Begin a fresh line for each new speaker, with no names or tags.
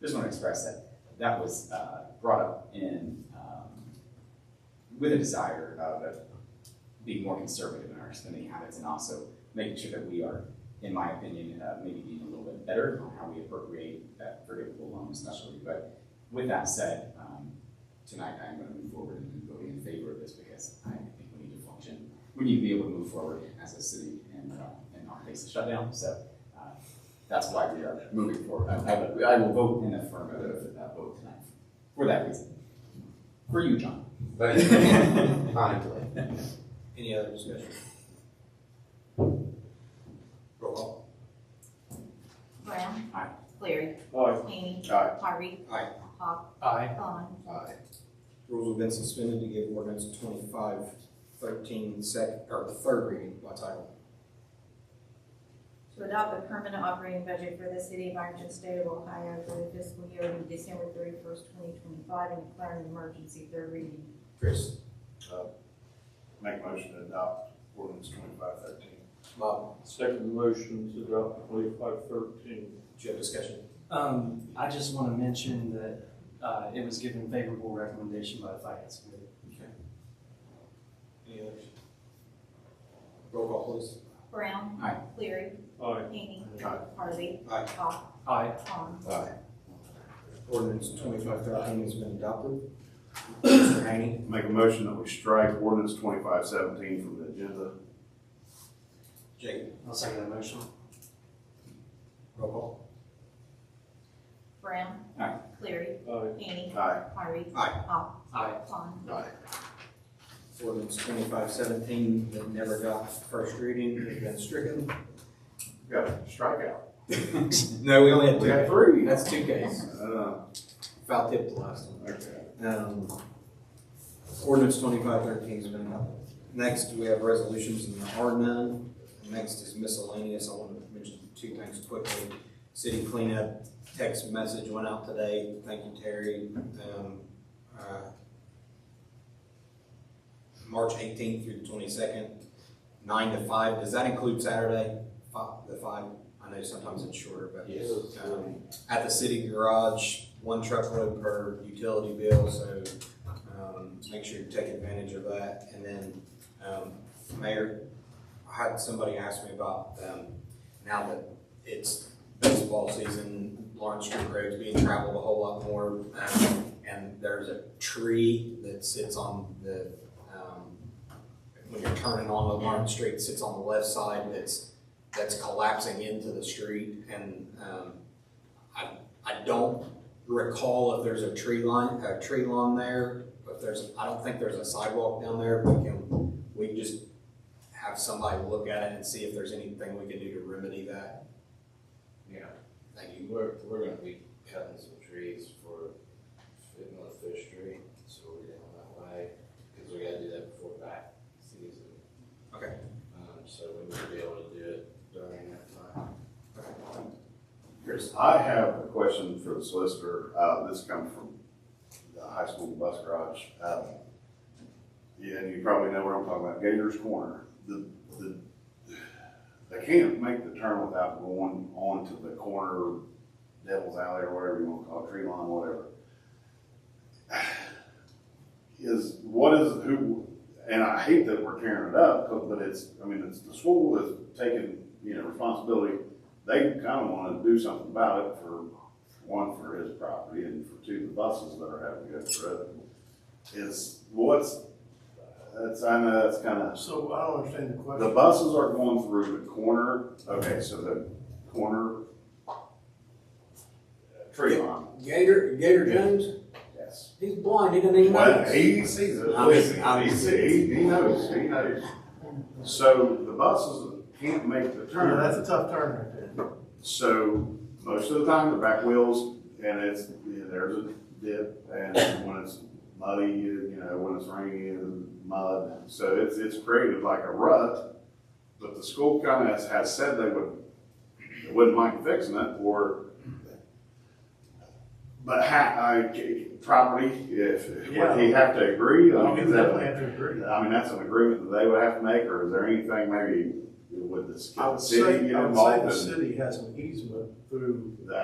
Just want to express that that was uh, brought up in, um, with a desire of of being more conservative in our spending habits and also making sure that we are, in my opinion, uh, maybe being a little bit better on how we appropriate that forgivable loan especially. But with that said, um, tonight I'm going to move forward and vote in favor of this because I think we need to function. We need to be able to move forward as a city and, uh, and not face a shutdown. So uh, that's why we are moving forward. I, I- I will vote in affirmative uh, vote tonight for that reason. For you, John.
Thank you. Kindly.
Any other discussion? Roll call.
Brown.
Aye.
Cleary.
Aye.
Hany.
Aye.
Harvey.
Aye.
Hawk.
Aye.
Vaughn.
Aye. Rules have been suspended to give ordinance twenty-five thirteen second, or the third reading by title.
To adopt the permanent operating budget for the city of Ironton, state of Ohio for the fiscal year ending December thirty-first, twenty twenty-five, and declaring an emergency third reading.
Chris,
Make motion to adopt ordinance twenty-five thirteen.
Bob,
Second motion to adopt twenty-five thirteen.
do you have discussion?
Um, I just want to mention that, uh, it was given favorable recommendation by the finance committee.
Any others? Roll call, please.
Brown.
Aye.
Cleary.
Aye.
Hany.
Aye.
Harvey.
Aye.
Hawk.
Aye.
Vaughn.
Aye. Ordinance twenty-five thirteen has been adopted. Mr. Haney,
Make a motion that we strike ordinance twenty-five seventeen from the agenda.
Jacob,
I'll second that motion.
roll call.
Brown.
Aye.
Cleary.
Aye.
Hany.
Aye.
Harvey.
Aye.
Hawk.
Aye.
Vaughn.
Aye. Ordinance twenty-five seventeen that never got first reading has been stricken.
We Got a strikeout.
No, we only
We got three.
That's two Ks.
Uh,
Foul tip the last one.
okay.
Um, ordinance twenty-five thirteen has been adopted. Next, we have resolutions and there are none. Next is miscellaneous. I want to mention two things quickly. City cleanup text message went out today. Thank you, Terry. Um, uh, March eighteenth through the twenty-second, nine to five. Does that include Saturday? Five, the five? I know sometimes it's shorter, but. Um, at the city garage, one truckload per utility bill, so, um, make sure you take advantage of that. And then, um, Mayor, I had somebody ask me about, um, now that it's baseball season, Lawrence Street Road's being traveled a whole lot more. Um, and there's a tree that sits on the, um, when you're turning on the Lawrence Street, sits on the left side that's, that's collapsing into the street. And, um, I, I don't recall if there's a tree line, a tree lawn there, but there's, I don't think there's a sidewalk down there, but can, we can just have somebody look at it and see if there's anything we can do to remedy that?
Yeah.
Thank you.
We're, we're gonna be cutting some trees for fitting on Fish Street, so we're down that way, cause we gotta do that before back season.
Okay.
Um, so we may be able to do it during that time.
Chris.
I have a question for the solicitor. Uh, this comes from the high school bus garage. Uh, Yeah, and you probably know where I'm talking about, Gators Corner. The, the, they can't make the turn without going onto the corner, Devil's Alley or whatever you wanna call it, tree line, whatever. Is, what is, who, and I hate that we're tearing it up, but it's, I mean, it's, the school is taking, you know, responsibility they kind of want to do something about it for, one, for his property, and for two, the buses that are having to go through it. Is, what's, that's, I know that's kind of,
So I don't understand the
the buses are going through the corner, okay, so the corner uh, tree line,
Gator, Gator Jones,
yes.
he's blind, he doesn't even
Well, he sees it,
I was-
he sees, he knows, he knows. So the buses can't make the turn.
a tough turn right there.
So most of the time, the back wheels, and it's, yeah, there's a dip, and when it's muddy, you you know, when it's rainy, it's mud. So it's, it's created like a rut, but the school kind of has, has said they would, they wouldn't mind fixing it, or, but ha, I, property, if, would he have to agree? I mean, is that- I mean, that's an agreement that they would have to make, or is there anything maybe with the
I would
city
say,
get
I would say
involved
the
in?
city has an easement through
that?